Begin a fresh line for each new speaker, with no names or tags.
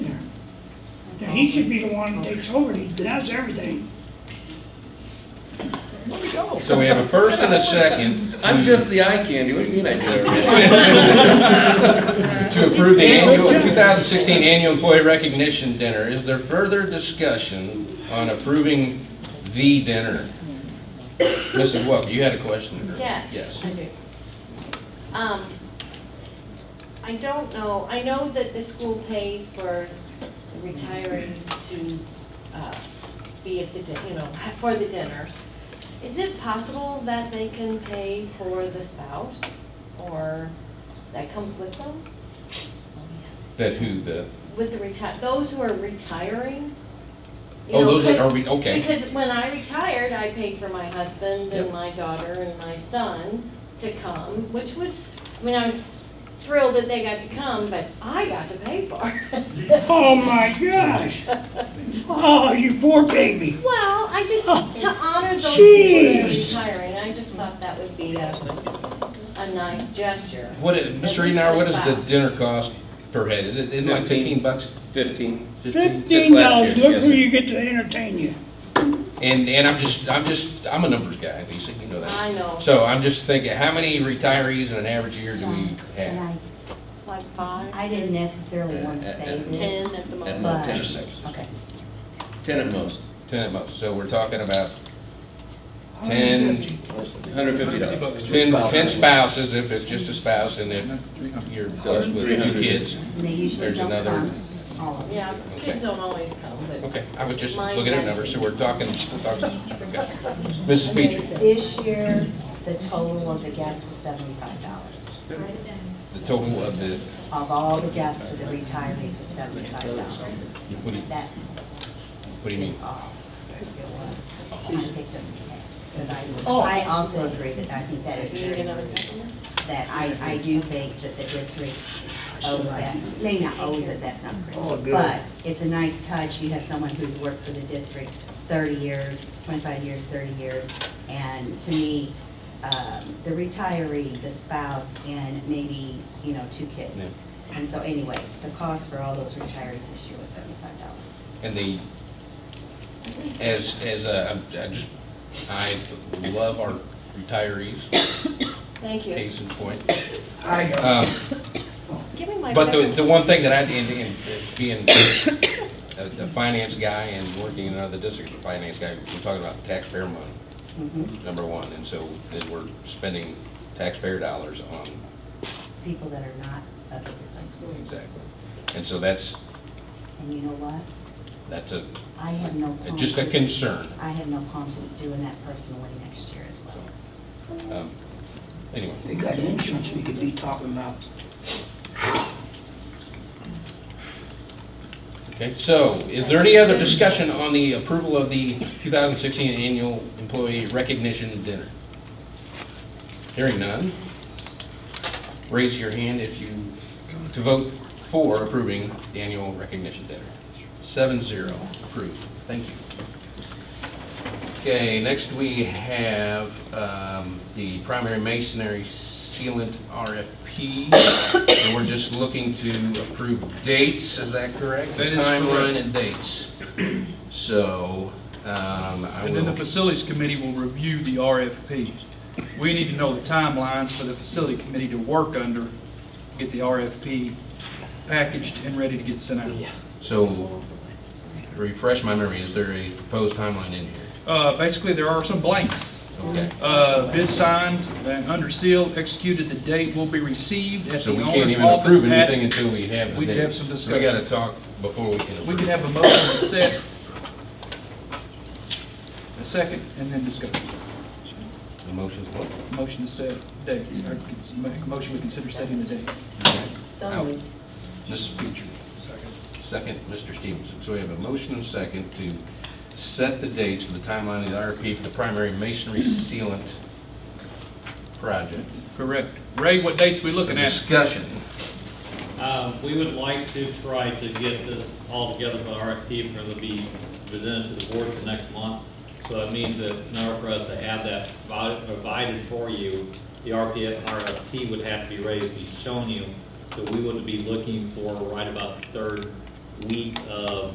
then he should be the one who takes over, he does everything.
So we have a first and a second. to-
I'm just the eye candy, what do you mean I do everything?
To approve the annual, 2016 annual employee recognition dinner. Is there further discussion on approving the dinner? Mrs. Welk, you had a question earlier.
Yes, I do. Um, I don't know, I know that the school pays for retirees to uh, be at the, di- you know, for the dinner. Is it possible that they can pay for the spouse or that comes with them?
That who, the,
With the retire, those who are retiring? you
oh,
know,
those that
'cause-
are, re- okay.
because when I retired, I paid for my husband
Yep.
and my daughter and my son to come, which was, I mean, I was thrilled that they got to come, but I got to pay for it.
Oh my gosh, oh, you poor baby.
Well, I just,
Oh,
to honor those people who are
Jeez.
retiring, I just thought that would be a, a nice gesture.
What, i- Mr. Edenhour, what does the dinner cost per head? Is it isn't it like 15
Fifteen.
bucks?
Fifteen.
Fifteen dollars,
Just last year,
look
yes,
who
sir.
you get to entertain you.
And, and I'm just, I'm just, I'm a numbers guy, Lisa, you know that.
I know.
So I'm just thinking, how many retirees in an average year do we
And
have?
I,
Like five?
I didn't necessarily want to say this,
Ten at the
At
moment.
most,
But-
just say.
okay,
Ten at most,
10 at most. So we're talking about
150.
Ten,
hundred fifty dollars.
ten, ten spouses, if it's just a spouse, and if you're blessed with
Three
two
hundred.
kids.
and they usually
There's
don't
another-
come, all of them.
Yeah, kids don't always come, but
Okay, I was just looking at numbers, so we're talking, we're talking, okay. Mrs. Petrie,
This year, the total of the guests was seventy-five dollars.
the total of the,
Of all the guests for the retirees was seventy-five dollars.
what do you,
That
what do you
is
mean?
all it was. I picked up the tab, but I, I also agree that I think that is
do you need
very
another
rude.
customer?
that I, I do think that the district owes that, may not owes it, that's not correct. But it's a nice touch, you have someone who's worked for the district thirty years, twenty-five years, thirty years. And to me, um, the retiree, the spouse, and maybe, you know, two
Yeah.
kids. And so anyway, the cost for all those retirees this year was seventy-five dollars.
And the, as, as, uh, I'm- I just, I love our retirees,
Thank you.
case in point.
I know.
Um,
Give me my.
But the,
back.
the one thing that I, and, and being a, a finance guy and working in another district, as a finance guy, we're talking about taxpayer money,
Mhm.
number one. And so then we're spending taxpayer dollars on,
People that are not of the district.
exactly. And so that's,
And you know what?
that's a,
I have no qualms.
just a
with-
concern.
I have no qualms with doing that personally next year as well.
Um, Anyway,
They got insurance, we could be talking about
okay. So is there any other discussion on the approval of the 2016 annual employee recognition dinner? Hearing none. Raise your hand if you, to vote for approving the annual recognition dinner. Seven zero, approved. Thank you. Okay, next we have um, the primary masonry sealant RFP. And we're just looking to approve dates, is that correct?
That is
Timeline
correct.
and dates. So, um, I
And then the
will,
facilities committee will review the RFP. We need to know the timelines for the facility committee to work under, get the RFP packaged and ready to get sent out.
so refresh my memory, is there a proposed timeline in here?
Uh, Basically, there are some blanks.
Okay.
Uh, Bid signed and under seal, executed, the date will be received at
So
the
we can't
owner's
even
office.
approve anything
at-
until we have the
we could
date.
have some
So We gotta
discussion.
talk before we can approve.
We can have a motion to set, a second, and then discuss.
The motion's what?
Motion to set dates, or make a motion we consider setting the dates.
Out.
So moved.
Mrs. Petrie. Second. Mr. Stevenson. So we have a motion and a second to set the dates for the timeline of the RFP for the primary masonry sealant project.
Correct. Ray, what dates we looking at?
Discussion.
Uh, We would like to try to get this all together by RFP, and it'll be presented to the board for next month. So it means that in order for us to have that provi- provided for you, the RFP, RFP would have to be ready to be shown you. So we would be looking for right about the third week of